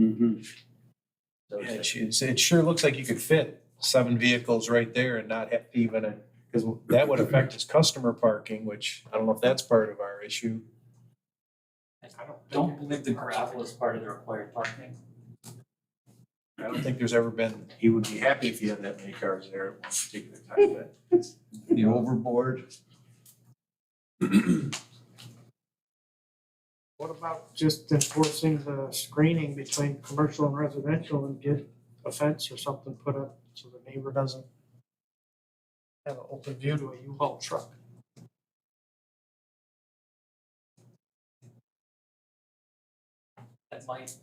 Mhm. So Yeah, it's it just- su- it's- it sure looks like you could fit seven vehicles right there and not have to even, because that would affect his customer parking, which I don't know if that's part of our issue. I don't- don't believe the gravel is part of the required parking. I don't think there's ever been, he would be happy if he had that many cars there at one particular time, but The overboard. What about just enforcing the screening between commercial and residential and get a fence or something put up so the neighbor doesn't have an open view to a U-Haul truck? That might,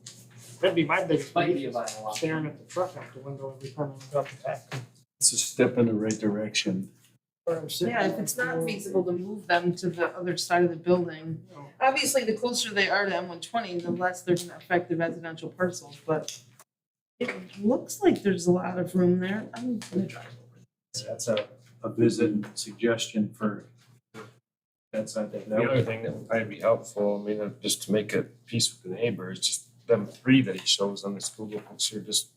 That'd be my biggest might be a beef, violation. staring at the truck out the window every time I look out the back. It's a step in the right direction. Or I'm sitting Yeah, on if the it's not floor. feasible to move them to the other side of the building. No. Obviously, the closer they are to M one twenty, the less they're gonna affect the residential parcels, but it looks like there's a lot of room there. I'm gonna drive over. that's a, a visit and suggestion for. That's, I think, The that other would, thing that would probably be helpful, I mean, uh, just to make it peace with the neighbor, is just them three that he shows on this Google picture, just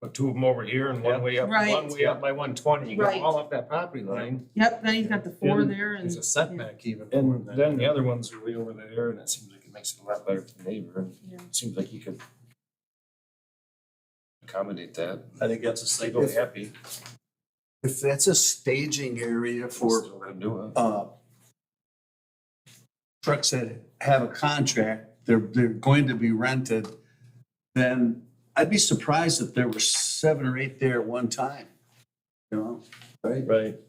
put two of them over here and one way up, one Right. way up by one twenty, you go Right. all up that property line. Yep, then he's got the four And there and. there's a setback even. And for that. then the other ones are way over there, and it seems like it makes it a lot better for the neighbor, and Yeah. it seems like you could accommodate that, I think that's a they'd single. be happy. If that's a staging area for, Still let 'em do it. uh, trucks that have a contract, they're, they're going to be rented, then I'd be surprised if there were seven or eight there at one time, you know? Right? Right.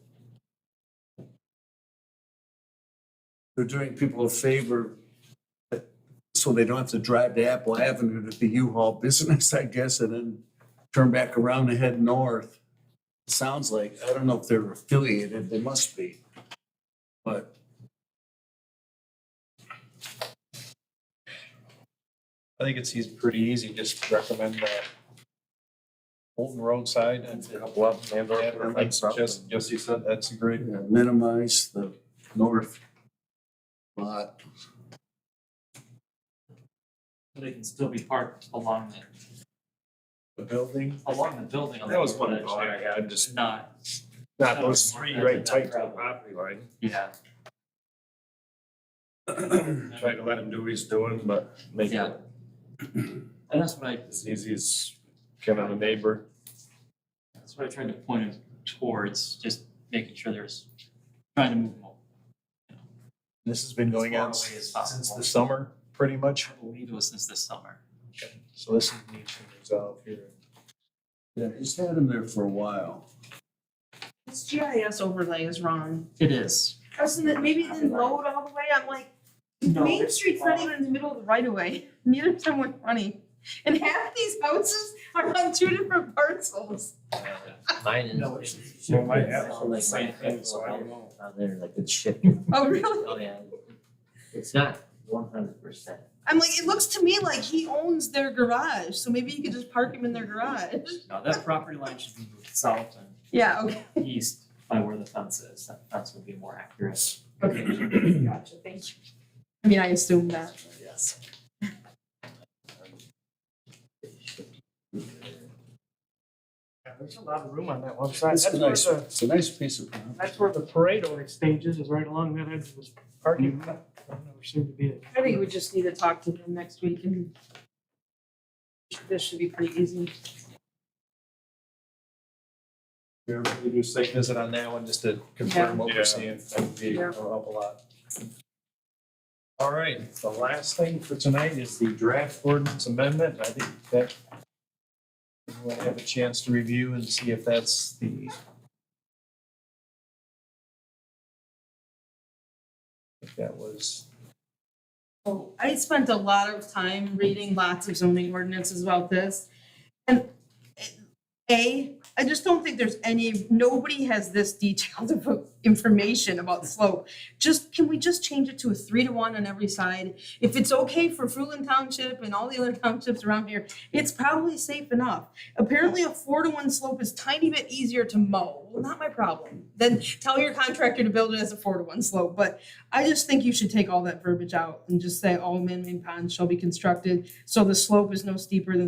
They're doing people a favor uh, so they don't have to drive to Apple Avenue to the U-Haul business, I guess, and then turn back around and head north. Sounds like, I don't know if they're affiliated, they must be. But I think it's easy, pretty easy, just recommend that. Holton roadside and. A Couple of them, and or Yeah, put like fence up Jesse, and- Jesse said, that's a great, yeah, minimize the north lot. They can still be parked along the, the building, along the building on the That was one footage thought I area, had, just- Not, Not those three right tight to the Gravel. property line. yeah. try to let him do what he's doing, but make Yeah. it And that's what I, as easy as can on a neighbor. that's what I tried to point it towards, just making sure there's, trying to move them all. this has been going on As far away as possible. since the summer, pretty much, I believe it was since this summer. so this is needs to resolve here. Yeah, he's had them there for a while. This GIS overlay is wrong. It is. Doesn't it, maybe it didn't load all the way. I'm like, No, Main it's Street's not not. even in the middle of the right of way, neither is M one twenty. And half these houses are on two different parcels. Mine is No, it's it's- Well, my it's, app- um, on like my sand fence hill. down there, like it's shifting. Oh, really? Oh, yeah. It's not one hundred percent. I'm like, it looks to me like he owns their garage, so maybe he could just park him in their garage. No, that property line should be moved south Yeah, okay. and east by where the fence is, that fence would be more accurate. Okay, gotcha, thank you. I mean, I assume that. Yes. Yeah, There's a lot of room on that one side. It's That's a where nice, the, it's a nice piece of property. that's where the parade only stages is right along that edge of this parking lot. There seemed to be a I think we just need to talk to him next week and this should be pretty easy. Here, we do a site visit on that one, just to confirm what Yeah. we're seeing, that would be, Yeah. that'll help a lot. All right, the last thing for tonight is the draft ordinance amendment, I think that we'll have a chance to review and see if that's the if that was Oh, I spent a lot of time reading lots of zoning ordinances about this. And it- A, I just don't think there's any, nobody has this detailed of information about the slope. Just, can we just change it to a three to one on every side? If it's okay for Fruitland Township and all the other townships around here, it's probably safe enough. Apparently a four to one slope is tiny bit easier to mow, well, not my problem. Then tell your contractor to build it as a four to one slope, but I just think you should take all that verbiage out and just say all man-made ponds shall be constructed so the slope is no steeper than